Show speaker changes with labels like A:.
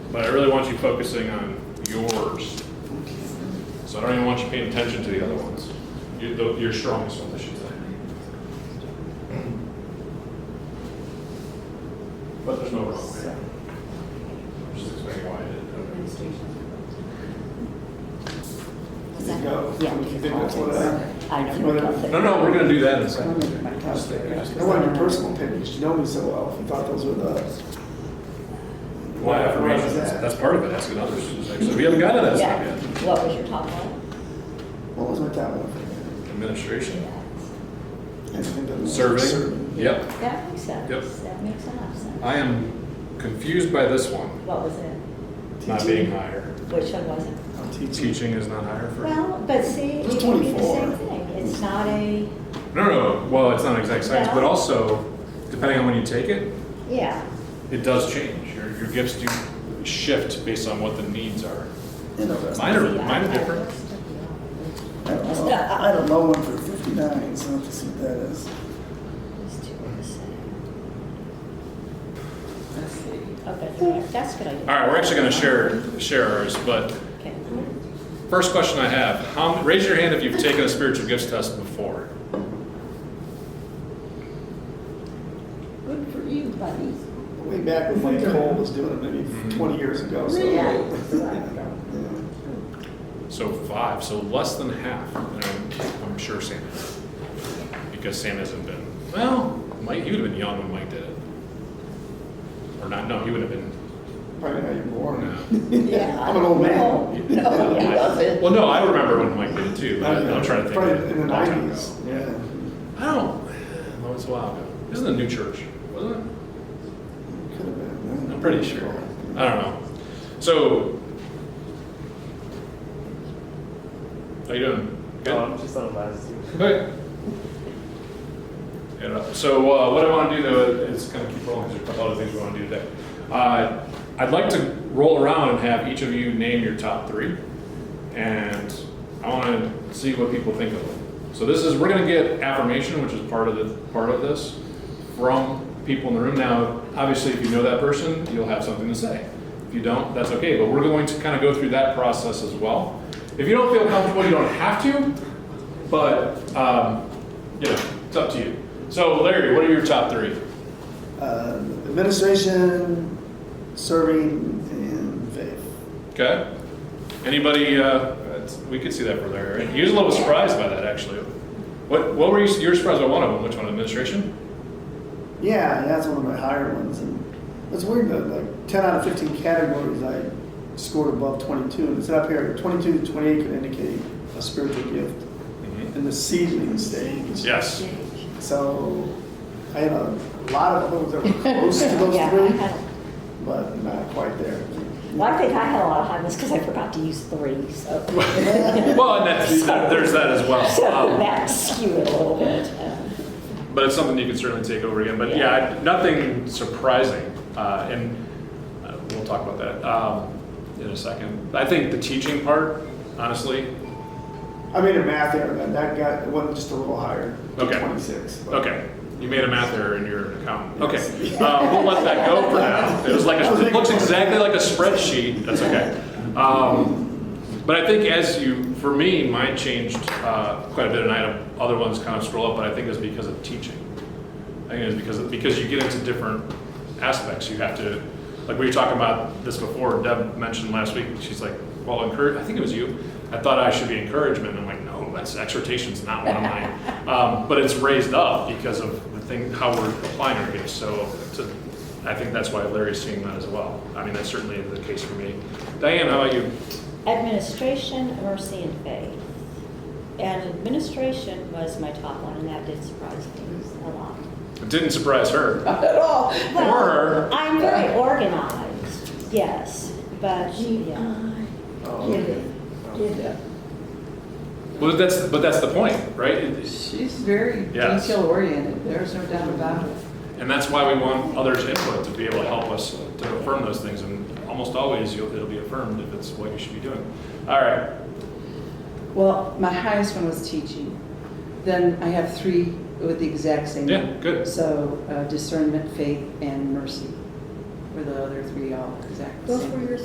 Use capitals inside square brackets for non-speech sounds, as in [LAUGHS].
A: But I really want you focusing on yours. So I don't even want you paying attention to the other ones. You- the- Your strongest one, I should say. But there's no wrong way. I'm just explaining why I did it.
B: Is
C: There you
B: that-
C: go.
B: Yeah.
C: You think that's what I-
B: I don't
C: What I-
B: know.
A: uh, No, no, we're gonna do that in a
B: I
A: second.
B: don't know about
C: I
B: that.
C: want your personal opinions, you know me so well, if you thought those were the,
A: Why affirmations, that's that's part of it, asking others. So we haven't got to that stuff
B: Yeah,
A: yet.
B: what was your top one?
C: what was my top one?
A: Administration,
C: I think that was-
A: serving, yep.
B: That makes sense.
A: Yep.
B: That makes a lot of sense.
A: I am confused by this one,
B: What was it?
A: not being higher.
B: Which one was it?
C: I'm teaching.
A: Teaching is not higher for.
B: Well, but see,
C: It's
B: it can be the
C: 24.
B: same thing. It's not a,
A: No, no, well, it's not exact science, but
B: No.
A: also, depending on when you take it,
B: yeah,
A: it does change. Your, your gifts do shift based on what the needs are.
C: You know, that's-
A: Mine are, mine are different.
C: I don't know. I had a low one for fifty-nine, so let's see what that is.
B: these two are the same. Okay, there. Oh, that's a good idea.
A: All right, we're actually gonna share, share ours, but
B: Okay.
A: first question I have, how, raise your hand if you've taken a spiritual gifts test before.
D: Good for you,
A: [LAUGHS]
D: buddy.
C: Way back when Mike Cole was doing it,
A: Mm-hmm.
C: maybe twenty years ago, so.
A: So five, so less than half, and I'm, I'm sure Sam is. Because Sam hasn't been, well, Mike, he would've been young when Mike did it. Or not, no, he would've been,
C: Probably how you're born.
A: no.
D: Yeah.
C: I'm an old
B: [LAUGHS]
C: man.
B: Oh,
D: No, he doesn't.
A: Well, no, [LAUGHS] I remember when Mike did it too, but I'm trying to think.
C: Probably
A: of it. A
C: in the
A: long time ago.
C: nineties, yeah.
A: I don't, that was a while ago. It was in the new church, wasn't it?
C: Could have been. yeah.
A: I'm pretty sure. I don't know. So. How you doing? Good?
E: Oh, I'm just on last two.
A: Okay. And, uh, So uh, what I want to do though is kind of keep rolling, there's a couple other things we want to do today. Uh, I'd like to roll around and have each of you name your top three. And I want to see what people think of them. So this is, we're going to get affirmation, which is part of the, part of this, from people in the room. Now, obviously, if you know that person, you'll have something to say. If you don't, that's okay, but we're going to kind of go through that process as well. If you don't feel comfortable, you don't have to, but, um, you know, it's up to you. So Larry, what are your top three?
C: Uh, administration, serving, and faith.
A: Okay? Anybody, uh, that's- we could see that for Larry, right? He was a little surprised by that, actually. What, what were you, you were surprised by one of them, which one, administration?
C: Yeah, that's one of my higher ones, and it's weird that like ten out of fifteen categories I scored above twenty-two, and it's up here. Twenty-two to twenty-eight could indicate a spiritual gift in the seedling stage.
A: Yes.
C: So I had a lot of others that
B: [LAUGHS]
C: were close to
B: Yeah,
C: those
B: I
C: three,
B: had,
C: but not quite there.
B: well, I think I had a lot of time, it's because I forgot to use three, so.
A: Well, and that's, that- there's that as
B: [LAUGHS] So
A: well. Um,
B: that skewed it a little bit. um,
A: But it's something you can certainly take over again. But yeah, I- nothing surprising. Uh, and uh, we'll talk about that um, in a second. I think the teaching part, honestly,
C: I made a math error, that that got, it wasn't just a little higher,
A: Okay.
C: twenty-six. but-
A: Okay, you made a math error in your accountant. Okay,
C: Yes.
A: uh, we'll let that go for now. It was like, a- it looks exactly like a spreadsheet, that's okay. Um, But I think as you, for me, mine changed uh, quite a bit, and I had other ones kind of scroll up, but I think it's because of teaching. I think it's because, because you get into different aspects, you have to, like we were talking about this before, Deb mentioned last week, she's like, well, encourage, I think it was you, I thought I should be encouragement, I'm like, no, that's, exhortation's not one of mine. Um, but it's raised up because of the thing, how we're applying our gifts, so to, I think that's why Larry's seeing that as well. I mean, that's certainly the case for me. Diane, how about you?
B: Administration, mercy, and faith. And administration was my top one, and that did surprise me a lot.
A: It didn't surprise her,
D: Not at all.
A: or,
B: I'm very organized, yes, but, yeah.
C: oh,
D: Get it, get it.
A: well, that's, but that's the point, right? It-
D: She's very
A: Yes.
D: detail oriented, there's no doubt about it.
A: And that's why we want others' input, to be able to help us to affirm those things, and almost always you'll, it'll be affirmed if it's what you should be doing. All right,
F: Well, my highest one was teaching. Then I have three with the exact same.
A: Yeah, good.
F: So uh, discernment, faith, and mercy were the other three all exact the same.
D: Those were your